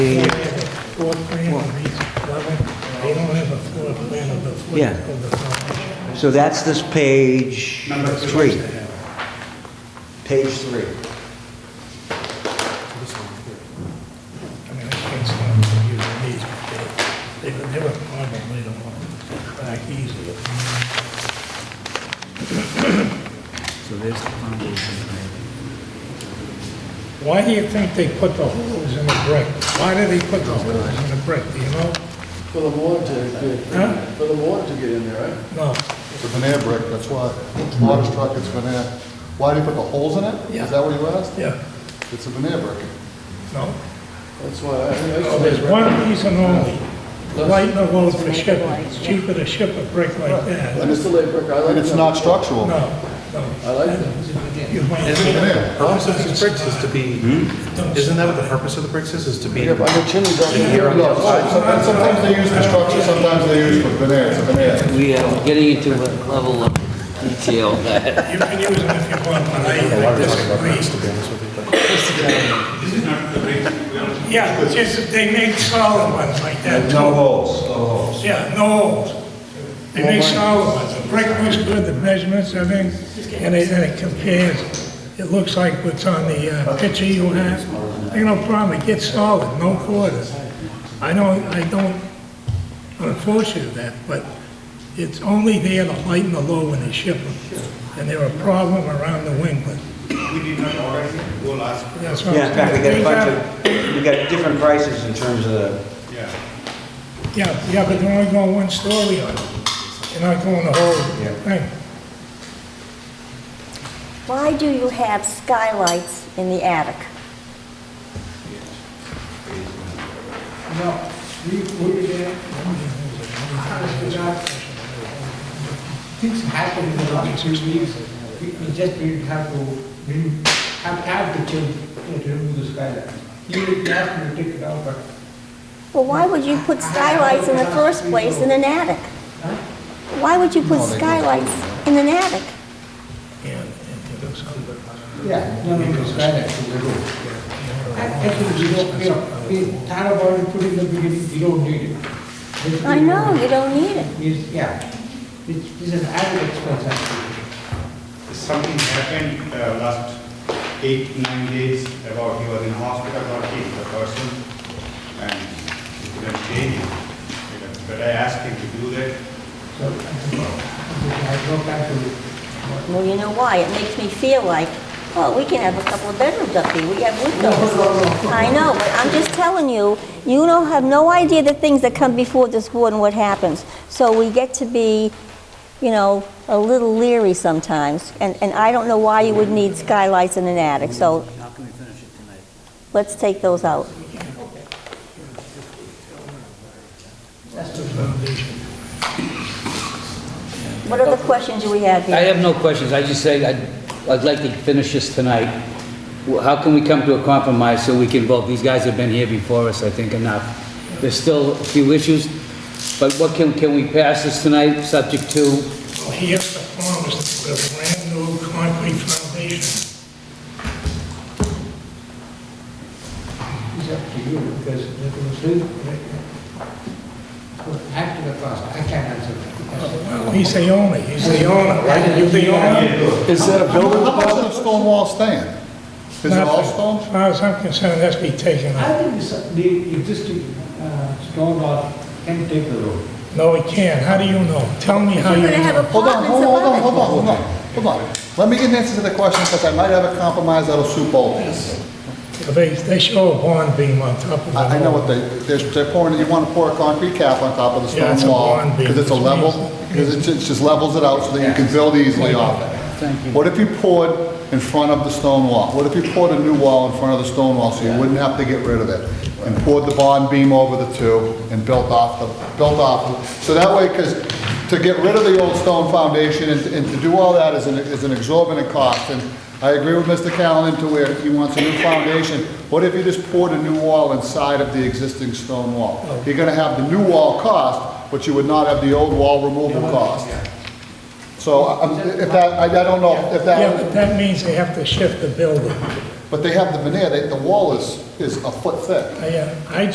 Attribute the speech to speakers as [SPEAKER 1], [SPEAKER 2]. [SPEAKER 1] the,
[SPEAKER 2] floor plan of each level, they don't have a floor plan of the foot
[SPEAKER 1] Yeah.
[SPEAKER 2] of the foundation.
[SPEAKER 1] so that's this page three. Page three.
[SPEAKER 2] I mean, I can't stand for using these, but they, they were- they were probably the one back easier.
[SPEAKER 3] So there's the foundation.
[SPEAKER 2] Why do you think they put the holes in the brick? Why do they put the holes in the brick, do you know?
[SPEAKER 4] For the water to
[SPEAKER 2] Huh?
[SPEAKER 4] get, for the water to get in there, right?
[SPEAKER 2] No,
[SPEAKER 5] It's a veneer brick, that's why. Water struck, it's veneer. Why do you put the holes in it? Is
[SPEAKER 2] Yeah.
[SPEAKER 5] that what you asked?
[SPEAKER 2] yeah,
[SPEAKER 5] It's a veneer brick.
[SPEAKER 2] no.
[SPEAKER 4] That's why, I, I used
[SPEAKER 2] So
[SPEAKER 4] to.
[SPEAKER 2] there's
[SPEAKER 4] make-
[SPEAKER 2] one reason only, lighten the load for shipping. It's cheaper to ship a brick like
[SPEAKER 4] I
[SPEAKER 2] that.
[SPEAKER 4] used to lay brick, I like
[SPEAKER 5] And it's
[SPEAKER 4] them.
[SPEAKER 5] not structural.
[SPEAKER 2] No, no.
[SPEAKER 4] I like them.
[SPEAKER 2] You
[SPEAKER 6] Isn't
[SPEAKER 2] might,
[SPEAKER 6] it, the purpose of these bricks is to be, isn't that what the purpose of the bricks is, is to be?
[SPEAKER 4] Yeah, but the chimney's up
[SPEAKER 5] Here
[SPEAKER 4] here.
[SPEAKER 5] it goes. Sometimes sometimes they use for structure, sometimes they use for veneer, it's a veneer.
[SPEAKER 7] We are getting into a level of detail that
[SPEAKER 2] you can use them if you want, but I I disagree.
[SPEAKER 8] This is not the brick, we are
[SPEAKER 2] Yeah, just, they make solid ones like that too.
[SPEAKER 9] No holes, no holes.
[SPEAKER 2] Yeah, no holes. They make solid ones. The brick looks good, the measurements, everything, and it, and it compares. It looks like what's on the uh, picture you have. You know, problem, it gets solid, no quarters. I don't, I don't, unfortunately that, but it's only there to lighten the load when they ship them. And they're a problem around New England.
[SPEAKER 8] we did not order it, go last,
[SPEAKER 2] That's what
[SPEAKER 1] Yeah,
[SPEAKER 2] I'm
[SPEAKER 1] in fact, we got
[SPEAKER 2] saying.
[SPEAKER 1] a bunch of, we got different prices in terms of the,
[SPEAKER 8] yeah.
[SPEAKER 2] Yeah, yeah, but they're only going one story on it. You're not going the whole thing.
[SPEAKER 10] Why do you have skylights in the attic?
[SPEAKER 11] things happen in the last three weeks. We we just didn't have to, we didn't have, have to change, you know, to remove the skylight. Even if you have to take it out, but,
[SPEAKER 10] Well, why would you put skylights in the first place in an attic?
[SPEAKER 11] huh?
[SPEAKER 10] Why would you put skylights in an attic?
[SPEAKER 2] and, and to do something.
[SPEAKER 11] Yeah, no, no, the skylight to the room. And actually, we don't, you know, we thought about it, put it in the beginning, we don't need it. Basically,
[SPEAKER 10] I know, you don't need it.
[SPEAKER 11] It's, yeah, it's, it's an added expense actually.
[SPEAKER 8] Something happened uh, last eight, nine days about he was in hospital, got hit, the person, and he couldn't stay here. But I asked him to do that,
[SPEAKER 11] So, I have no time to,
[SPEAKER 10] Well, you know why? It makes me feel like, oh, we can have a couple of bedrooms up here, we have windows. I know, but I'm just telling you, you don't have no idea the things that come before this board and what happens. So we get to be, you know, a little leery sometimes, and, and I don't know why you would need skylights in an attic, so
[SPEAKER 3] How can we finish it tonight?
[SPEAKER 10] let's take those out. What other questions do we have
[SPEAKER 7] I
[SPEAKER 10] here?
[SPEAKER 7] have no questions, I just say, I'd, I'd like to finish this tonight. Well, How can we come to a compromise so we can vote? These guys have been here before us, I think, enough. There's still a few issues, but what can, can we pass this tonight, subject to?
[SPEAKER 2] Well, he has to promise to put a brand new concrete foundation.
[SPEAKER 11] It's up to you, because it was still, add to the cost, I can't answer that. because-
[SPEAKER 2] Well, he's the owner, he's the owner, right? You're the owner.
[SPEAKER 4] Is that a
[SPEAKER 5] How much of the stone wall staying? Is it all stone?
[SPEAKER 2] As far as I'm concerned, that's be taken
[SPEAKER 11] I
[SPEAKER 2] out.
[SPEAKER 11] think this- the existing uh, stone wall can take the road.
[SPEAKER 2] No, he can't. How do you know? Tell me how you
[SPEAKER 10] You're gonna have a
[SPEAKER 2] know.
[SPEAKER 5] Hold on,
[SPEAKER 10] apartments
[SPEAKER 5] hold on, hold
[SPEAKER 10] above
[SPEAKER 5] on,
[SPEAKER 10] it.
[SPEAKER 5] hold on, hold on, hold on. Let me get an answer to the question, because I might have a compromise that'll suit both. of us.
[SPEAKER 2] They, they show a bond beam on top of it.
[SPEAKER 5] I, I know what they, they're, they're pouring, you wanna pour a concrete cap on top of the
[SPEAKER 2] Yeah, it's
[SPEAKER 5] stone
[SPEAKER 2] a
[SPEAKER 5] wall,
[SPEAKER 2] bond beam,
[SPEAKER 5] because it's a
[SPEAKER 2] which
[SPEAKER 5] level,
[SPEAKER 2] means-
[SPEAKER 5] because it ju- just levels it out so that you can build easily off it. Thank you. Mm-hmm. What if you poured in front of the stone wall? What if you poured a new wall in front of the stone wall, so you wouldn't have to get rid of it? And poured the bond beam over the two and built off the, built off, so that way, because to get rid of the old stone foundation and, and to do all that is an, is an exorbitant cost, and I agree with Mr. Callen to where he wants a new foundation. What if you just poured a new wall inside of the existing stone wall? You're gonna have the new wall cost, but you would not have the old wall removal cost. So um, if that, I I don't know if
[SPEAKER 2] Yeah,
[SPEAKER 5] that,
[SPEAKER 2] but that means they have to shift the building.
[SPEAKER 5] but they have the veneer, they- the wall is, is a foot thick.
[SPEAKER 2] I, uh, I